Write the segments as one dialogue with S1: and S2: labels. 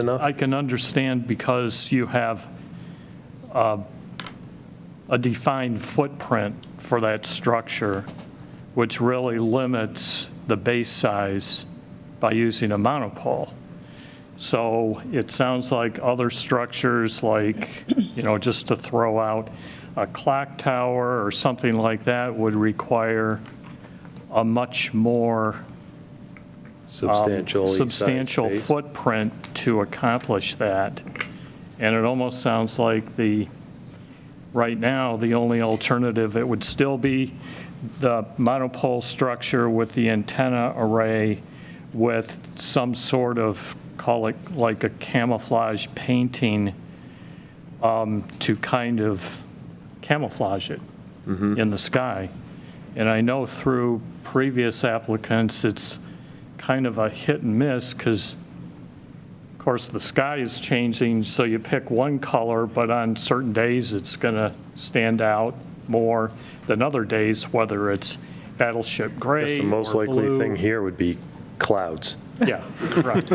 S1: enough?
S2: I can understand because you have uh, a defined footprint for that structure, which really limits the base size by using a monopole. So it sounds like other structures, like, you know, just to throw out a clock tower or something like that would require a much more
S1: Substantial.
S2: substantial footprint to accomplish that. And it almost sounds like the, right now, the only alternative, it would still be the monopole structure with the antenna array with some sort of, call it like a camouflage painting um, to kind of camouflage it
S1: Mm-hmm.
S2: in the sky. And I know through previous applicants, it's kind of a hit and miss because, of course, the sky is changing, so you pick one color, but on certain days, it's going to stand out more than other days, whether it's battleship
S1: I guess
S2: gray
S1: the most
S2: or
S1: likely
S2: blue.
S1: thing here would be clouds,
S2: Yeah, right.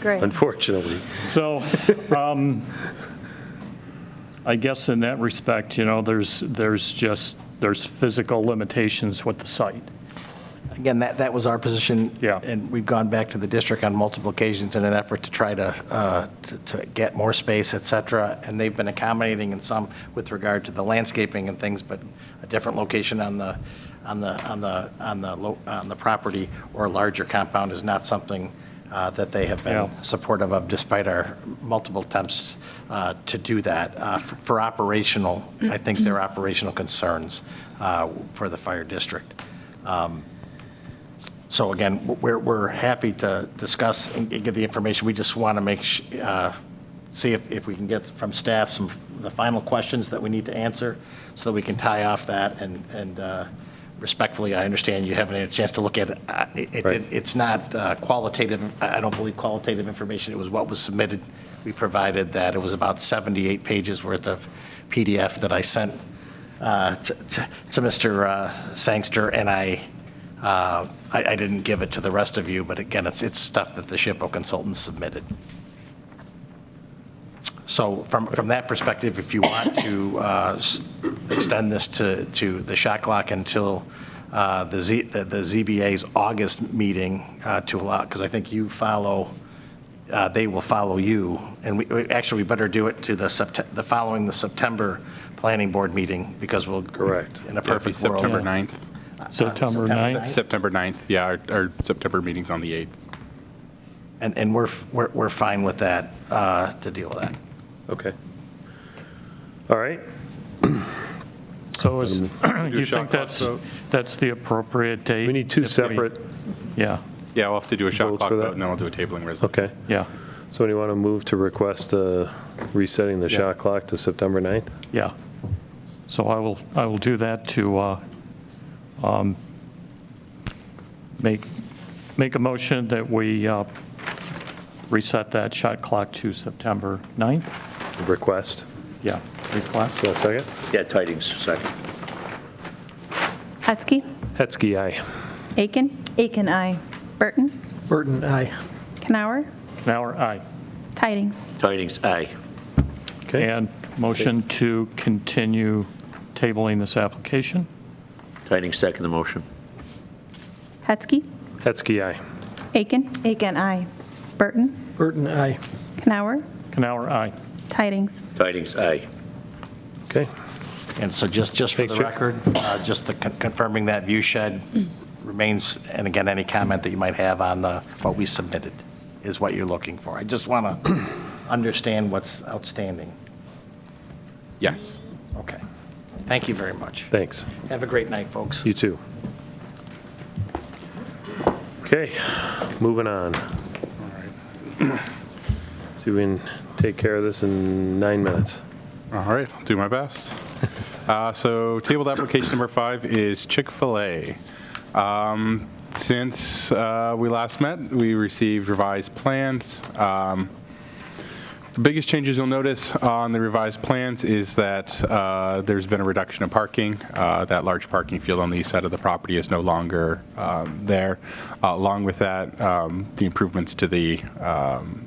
S3: Great.
S1: unfortunately.
S2: So, um, I guess in that respect, you know, there's, there's just, there's physical limitations with the site.
S4: Again, that, that was our position.
S2: Yeah.
S4: And we've gone back to the district on multiple occasions in an effort to try to, uh, to- to get more space, et cetera, and they've been accommodating in some with regard to the landscaping and things, but a different location on the, on the, on the, on the, lo- on the property or a larger compound is not something uh, that they have been
S2: Yeah.
S4: supportive of despite our multiple attempts uh, to do that uh, f- for operational, I think their operational concerns uh, for the fire district. So again, we're, we're happy to discuss and get the information. We just want to make, sh- uh, see if, if we can get from staff some, the final questions that we need to answer so that we can tie off that and, and uh, respectfully, I understand you haven't had a chance to look at it. Uh, it- it.
S1: Right.
S4: did- It's not uh, qualitative, I I don't believe qualitative information. It was what was submitted. We provided that. It was about 78 pages worth of PDF that I sent uh, to to- to Mr. uh, Sangster, and I, uh, I I didn't give it to the rest of you, but again, it's, it's stuff that the SHPO consultants submitted. So from, from that perspective, if you want to uh, s- extend this to, to the shot clock until uh, the Z, the the ZBA's August meeting uh, to allow, because I think you follow, uh, they will follow you, and we- we, actually, we better do it to the Sept, the following the September Planning Board meeting, because we'll.
S1: Correct.
S4: In a
S5: It'd be
S4: perfect world.
S5: September 9th.
S2: September
S4: September
S2: 9th,
S5: September 9th, yeah, our, our September meeting's on the 8th.
S4: And, and we're, f- we're, we're fine with that, uh, to deal with that.
S1: Okay. All right.
S2: so is, you
S5: shot
S2: think
S5: clock
S2: that's,
S5: vote.
S2: that's the appropriate date?
S1: We need two
S2: if we-
S1: separate,
S2: Yeah,
S5: Yeah, we'll have to do a shot
S1: Votes
S5: clock
S1: for that?
S5: vote, and then we'll do a tabling resolution.
S1: okay.
S2: yeah,
S1: So do you want to move to request uh, resetting the shot clock to September 9th?
S2: yeah. So I will, I will do that to uh, um, make, make a motion that we uh, reset that shot clock to September 9th.
S1: Request.
S2: Yeah, request.
S1: So a second?
S6: Yeah, tidings, second.
S3: Hetzke.
S1: Hetzke, aye.
S3: Aiken.
S7: Aiken, aye.
S3: Burton.
S8: Burton, aye.
S3: Canower.
S2: Now, aye.
S3: Tidings.
S6: Tidings, aye.
S1: Okay.
S2: And motion to continue tabling this application?
S6: Tidings, second the motion.
S3: Hetzke.
S1: Hetzke, aye.
S3: Aiken.
S7: Aiken, aye.
S3: Burton.
S8: Burton, aye.
S3: Canower.
S2: Canower, aye.
S3: Tidings.
S6: Tidings, aye.
S1: Okay.
S4: And so just, just for the
S1: Thanks, Jim.
S4: record, uh, just to con- confirming that view shed remains, and again, any comment that you might have on the, what we submitted is what you're looking for. I just want to understand what's outstanding.
S5: Yes.
S4: Okay. Thank you very much.
S1: Thanks.
S4: Have a great night, folks.
S1: You too. Okay, moving on. See if we can take care of this in nine minutes.
S5: All right, I'll do my best. Uh, So tabled application number five is Chick-fil-A. Um, Since uh, we last met, we received revised plans. Um, The biggest changes you'll notice on the revised plans is that uh, there's been a reduction of parking. Uh, That large parking field on the east side of the property is no longer um, there. Uh, Along with that, um, the improvements to the um,